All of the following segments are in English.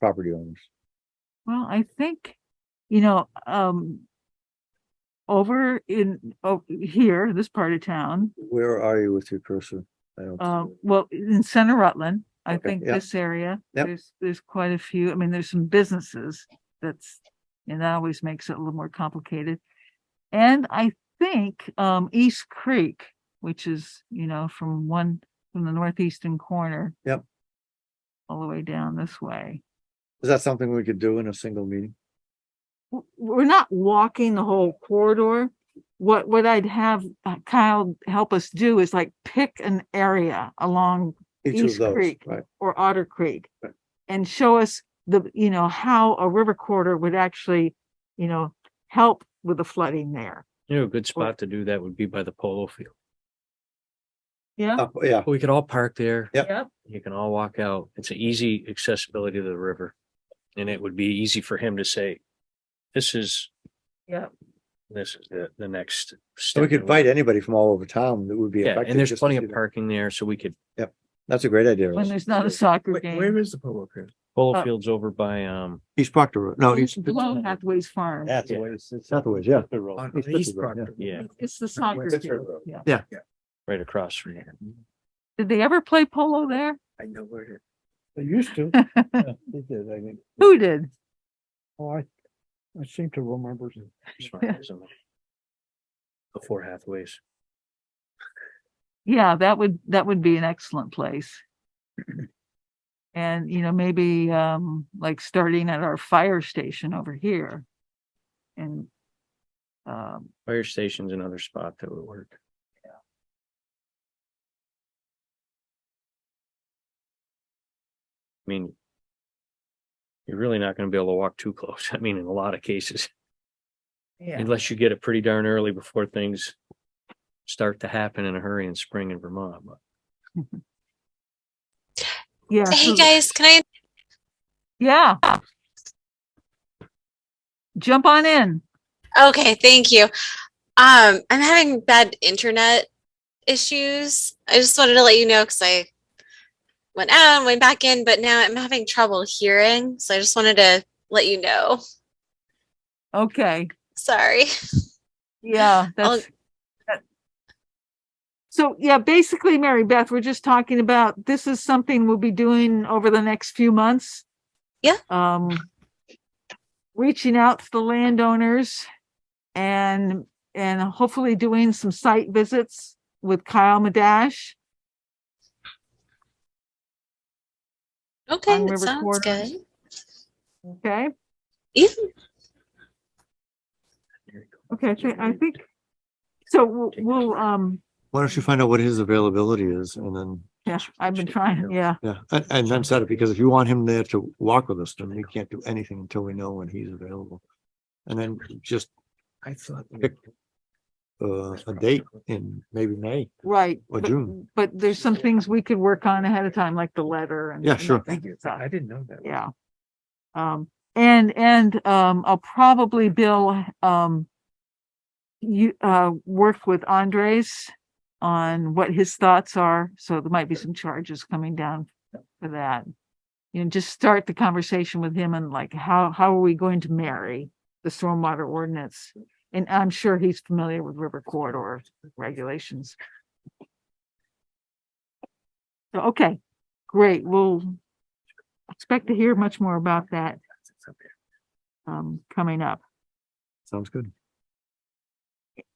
property owners. Well, I think, you know, um. Over in, oh, here, this part of town, Where are you with your cursor? I don't see um, it. well, in Center Rutland, I Okay, think yeah. this area. Yep. There's, there's quite a few, I mean, there's some businesses that's, and that always makes it a little more complicated. And I think, um, East Creek, which is, you know, from one, from the northeastern corner. Yep. All the way down this way. Is that something we could do in a single meeting? w- we're not walking the whole corridor. What, what I'd have uh, Kyle help us do is like pick an area along Each East of those, Creek. right? or Otter Creek Right. and show us the, you know, how a river corridor would actually, you know, help with the flooding there. You know, a good spot to do that would be by the polo field. Yeah. Up- Yeah, We could all park there. Oh, Yep. Yep. You can all walk out. It's an easy accessibility to the river. And it would be easy for him to say, this is, Yeah. this is the, the next. so we step could in invite what-" anybody from all over town that would be Yeah, affected. and there's just to plenty see of that. parking there, so we could, That's a great idea. When Russ. there's not a soccer game. is the polo field? polo Oh. Uh, field's over by, um, East Proctor, Road. no, East, Below Hathaway's Farm. That's the way Southaways, yeah. On It's East Pittsburgh, yeah. Proctor. yeah, It's the soccer. Pittsburgh field, Road. yeah. right across from here. Did they ever play polo there? I know where it. They used to. They did, I think. Who did? Oh, I, I seem to remember. Smart, isn't it? Before Hathaway's. Yeah, that would, that would be an excellent place. And, you know, maybe, um, like starting at our fire station over here. And, um, Fire station's another spot that would work. I mean, you're really not gonna be able to walk too close. I mean, in a lot of cases, yeah, unless you get it pretty darn early before things start to happen in a hurry in spring in Vermont, but yeah, Hey so- guys, can I? yeah. Jump on in. Okay, thank you. Um, I'm having bad internet issues. I just wanted to let you know because I went out and went back in, but now I'm having trouble hearing. So I just wanted to let you know. Okay, Sorry. yeah, I'll- that's. that- So, yeah, basically, Mary Beth, we're just talking about, this is something we'll be doing over the next few months. Yeah. Um, reaching out to the landowners and, and hopefully doing some site visits with Kyle Madash. Okay, On that river sounds corridors. good. Okay, Yeah, okay, I thi- I think, so we'll- we'll, um, Why don't you find out what his availability is and then, yeah, I've been trying, yeah, yeah, and, and then set it, because if you want him there to walk with us, then we can't do anything until we know when he's available. And then just, I thought. Pick- uh, a date in maybe May. right. Or but- June. But there's some things we could work on ahead of time, like the letter and. Yeah, and that sure. kind of stuff. didn't know that. Yeah. Um, and, and, um, I'll probably, Bill, um, you, uh, work with Andres on what his thoughts are. So there might be some charges coming down for that. You know, just start the conversation with him and like, how, how are we going to marry the stormwater ordinance? And I'm sure he's familiar with river corridor regulations. So, Okay, great. We'll expect to hear much more about that um coming up. Sounds good.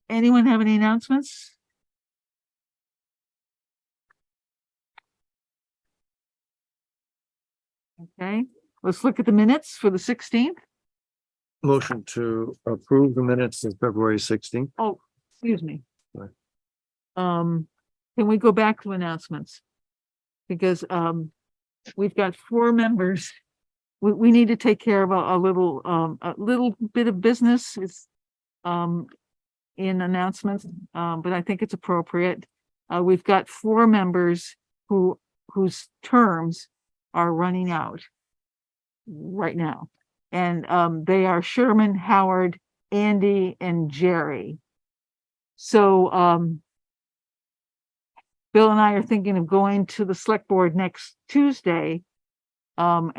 Anyone have any announcements? Okay, let's look at the minutes for the sixteenth. Motion to approve the minutes of February sixteenth. Excuse me. Sorry. Um, can we go back to announcements? Because um, we've got four members. We, we need to take care of a, a little, um, a little bit of business is um, in announcements, um, but I think it's appropriate. Uh, we've got four members who, whose terms are running out right now. And um, they are Sherman, Howard, Andy, and Jerry. So, um, Bill and I are thinking of going to the select board next Tuesday. Um,